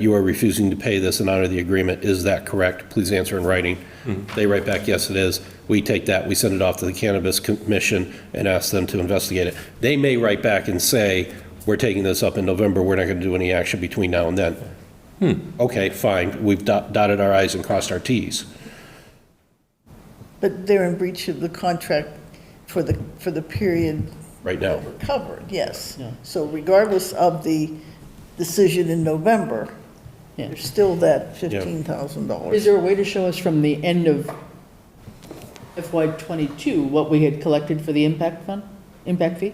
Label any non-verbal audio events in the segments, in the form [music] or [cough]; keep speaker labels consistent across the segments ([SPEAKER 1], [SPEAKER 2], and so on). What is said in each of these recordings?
[SPEAKER 1] you are refusing to pay this in honor of the agreement, is that correct? Please answer in writing. They write back, yes, it is. We take that, we send it off to the Cannabis Commission and ask them to investigate it. They may write back and say, we're taking this up in November, we're not going to do any action between now and then. Okay, fine, we've dot- dotted our i's and crossed our t's.
[SPEAKER 2] But they're in breach of the contract for the, for the period
[SPEAKER 1] right now.
[SPEAKER 2] covered, yes. So regardless of the decision in November,
[SPEAKER 3] Yeah.
[SPEAKER 2] there's still that $15,000.
[SPEAKER 3] Is there a way to show us from the end of FY '22 what we had collected for the impact fund, impact fee?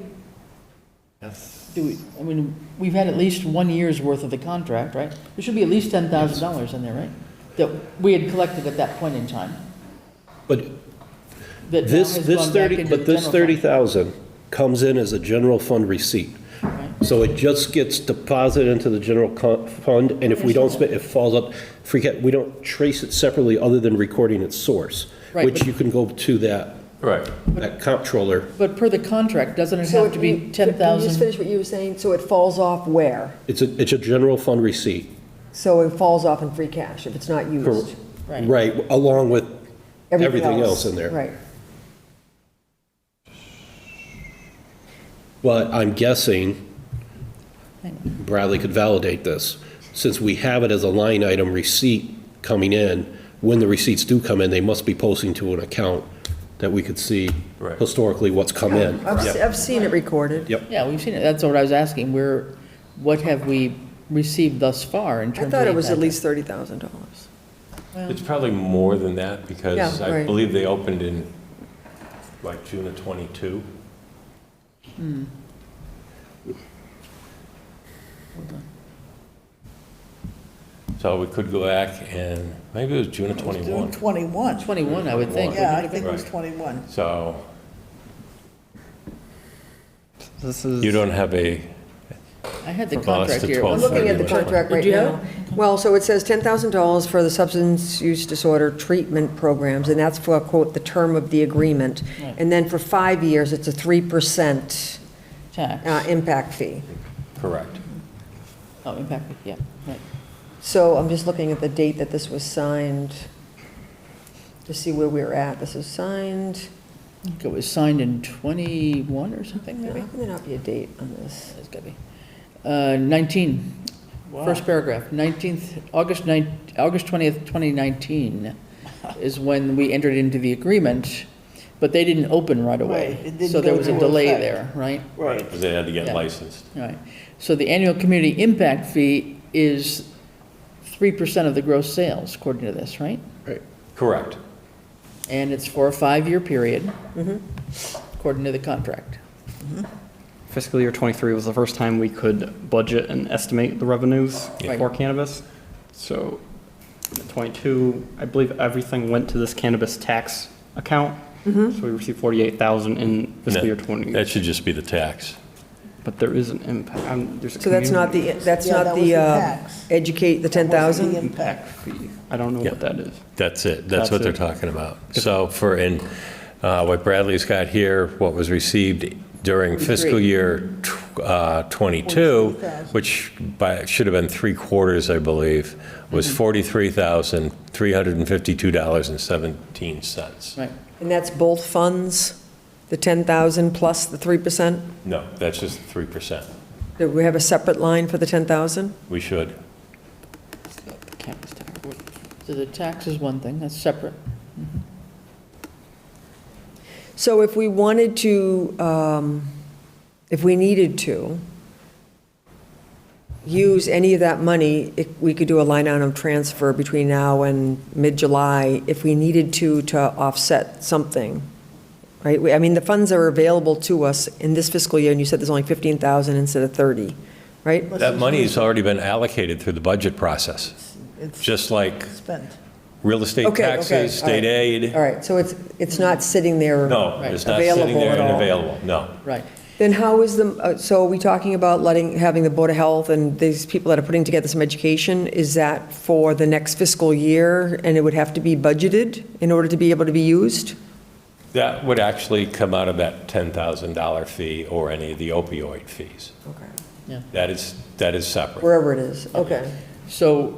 [SPEAKER 3] Do we, I mean, we've had at least one year's worth of the contract, right? There should be at least $10,000 in there, right? That we had collected at that point in time,
[SPEAKER 1] But
[SPEAKER 3] that now
[SPEAKER 1] this,
[SPEAKER 3] has
[SPEAKER 1] this
[SPEAKER 3] gone back
[SPEAKER 1] 30,
[SPEAKER 3] into
[SPEAKER 1] but
[SPEAKER 3] the
[SPEAKER 1] this
[SPEAKER 3] general fund.
[SPEAKER 1] 30,000 comes in as a general fund receipt. So it just gets deposited into the general co- fund, and if we don't spend, it falls up, forget, we don't trace it separately other than recording its source,
[SPEAKER 3] Right,
[SPEAKER 1] which
[SPEAKER 3] but-
[SPEAKER 1] you can go to that,
[SPEAKER 4] Right.
[SPEAKER 1] that comptroller.
[SPEAKER 3] But per the contract, doesn't it
[SPEAKER 5] So
[SPEAKER 3] have to
[SPEAKER 5] you-
[SPEAKER 3] be
[SPEAKER 5] Can you just
[SPEAKER 3] 10,000?
[SPEAKER 5] finish what you were saying? So it falls off where?
[SPEAKER 1] It's a, it's a general fund receipt.
[SPEAKER 5] So it falls off in free cash if it's not used?
[SPEAKER 3] Right.
[SPEAKER 1] Right, along with everything else in there.
[SPEAKER 5] Right.
[SPEAKER 1] But I'm guessing Bradley could validate this. Since we have it as a line item receipt coming in, when the receipts do come in, they must be posting to an account that we could see
[SPEAKER 4] Right.
[SPEAKER 1] historically what's come in.
[SPEAKER 5] I've, se- I've seen it recorded.
[SPEAKER 1] Yep.
[SPEAKER 3] Yeah, we've seen it, that's what I was asking, where, what have we received thus far in
[SPEAKER 5] I
[SPEAKER 3] terms of?
[SPEAKER 5] thought it was at
[SPEAKER 3] impact?
[SPEAKER 5] least $30,000.
[SPEAKER 4] It's probably more than that because
[SPEAKER 5] Yeah,
[SPEAKER 4] I
[SPEAKER 5] right.
[SPEAKER 4] believe they opened in like June of '22. So we could go back and, maybe it was June of
[SPEAKER 2] June
[SPEAKER 4] '21.
[SPEAKER 2] 21.
[SPEAKER 3] 21, I would think.
[SPEAKER 2] Yeah, I
[SPEAKER 3] wouldn't it?
[SPEAKER 2] think it was
[SPEAKER 4] Right.
[SPEAKER 2] 21.
[SPEAKER 4] So
[SPEAKER 6] This
[SPEAKER 4] you
[SPEAKER 6] is,
[SPEAKER 4] don't have a,
[SPEAKER 3] I had the
[SPEAKER 4] From
[SPEAKER 3] contract
[SPEAKER 4] us to
[SPEAKER 3] here. It
[SPEAKER 4] 12.
[SPEAKER 5] I'm
[SPEAKER 4] Well,
[SPEAKER 5] looking at the
[SPEAKER 4] $30,000.
[SPEAKER 5] contract right
[SPEAKER 3] Did you
[SPEAKER 5] now. Well, so it says $10,000 for the substance use disorder treatment programs, and that's for, quote, "the term of the agreement." And then for five years, it's a 3%
[SPEAKER 3] wasn't Tax.
[SPEAKER 5] uh, impact fee.
[SPEAKER 4] correct.
[SPEAKER 3] Oh, impact, fee, yeah, right.
[SPEAKER 5] So I'm just looking at the date that this was signed to see where we were at. This was signed,
[SPEAKER 2] Mm-hmm.
[SPEAKER 3] I think it was signed in 21 or something,
[SPEAKER 5] how
[SPEAKER 3] maybe?
[SPEAKER 5] can there not be a date on this?
[SPEAKER 3] It's gotta be. Uh, 19, first paragraph, 19th, August 9, August
[SPEAKER 2] [laughs]
[SPEAKER 3] 20th, 2019 is when we entered into the agreement, but they didn't open right away.
[SPEAKER 2] Right, it didn't
[SPEAKER 3] So there
[SPEAKER 2] go
[SPEAKER 3] was a
[SPEAKER 2] into
[SPEAKER 3] delay
[SPEAKER 2] effect.
[SPEAKER 3] there, right?
[SPEAKER 2] Right.
[SPEAKER 4] Because they had to
[SPEAKER 3] Yeah.
[SPEAKER 4] get licensed.
[SPEAKER 3] Right. So the annual community impact fee is 3% of the gross sales, according to this, right?
[SPEAKER 4] Correct.
[SPEAKER 3] And it's for a five-year period, according to the contract.
[SPEAKER 6] fiscal year '23 was the first time we could budget and estimate the revenues
[SPEAKER 3] Yeah.
[SPEAKER 6] for cannabis. So '22, I believe everything went to this cannabis tax account.
[SPEAKER 5] Mm-hmm.
[SPEAKER 6] So we received 48,000 in fiscal year
[SPEAKER 4] That
[SPEAKER 6] '20,
[SPEAKER 4] should just be the tax.
[SPEAKER 6] but there is an impact, um, there's a
[SPEAKER 5] So that's not
[SPEAKER 6] community
[SPEAKER 5] the, that's
[SPEAKER 2] Yeah,
[SPEAKER 5] not
[SPEAKER 2] that was
[SPEAKER 5] the
[SPEAKER 2] the
[SPEAKER 5] uh,
[SPEAKER 2] tax.
[SPEAKER 5] educate, the
[SPEAKER 2] That wasn't
[SPEAKER 5] 10,000?
[SPEAKER 2] the impact.
[SPEAKER 6] impact fee. I don't know
[SPEAKER 4] Yeah.
[SPEAKER 6] what that is.
[SPEAKER 4] That's it, that's
[SPEAKER 6] That's
[SPEAKER 4] what they're
[SPEAKER 6] it.
[SPEAKER 4] talking about. So for, in uh, what Bradley's got here, what was received during fiscal year tw- uh, '22, which by, should have been three quarters, I believe, was
[SPEAKER 5] Mm-hmm.
[SPEAKER 4] $43,352.17.
[SPEAKER 3] Right.
[SPEAKER 2] uh,
[SPEAKER 5] And that's both funds, the 10,000 plus the 3%?
[SPEAKER 4] No, that's just 3%.
[SPEAKER 5] Do we have a separate line for the 10,000?
[SPEAKER 4] We should.
[SPEAKER 3] Campus tax. So the tax is one thing, that's separate.
[SPEAKER 5] So if we wanted to, um, if we needed to use any of that money, if we could do a line item transfer between now and mid-July if we needed to, to offset something, right? We- I mean, the funds are available to us in this fiscal year, and you said there's only 15,000 instead of 30, right?
[SPEAKER 4] That money's already been allocated through the budget process,
[SPEAKER 2] It's
[SPEAKER 4] just like
[SPEAKER 2] spent.
[SPEAKER 4] real estate
[SPEAKER 5] Okay, okay,
[SPEAKER 4] taxes,
[SPEAKER 5] all right.
[SPEAKER 4] state aid.
[SPEAKER 5] All right, so it's, it's not sitting there.
[SPEAKER 4] No,
[SPEAKER 3] Right.
[SPEAKER 4] it's not sitting
[SPEAKER 5] Available
[SPEAKER 4] there
[SPEAKER 5] at
[SPEAKER 4] and
[SPEAKER 5] all.
[SPEAKER 4] available, no.
[SPEAKER 3] Right.
[SPEAKER 5] Then how is the, uh, so are we talking about letting, having the Board of Health and these people that are putting together some education? Is that for the next fiscal year, and it would have to be budgeted in order to be able to be used?
[SPEAKER 4] That would actually come out of that $10,000 fee or any of the opioid fees.
[SPEAKER 5] Okay.
[SPEAKER 4] That is, that is separate.
[SPEAKER 5] Wherever it is, okay.
[SPEAKER 3] So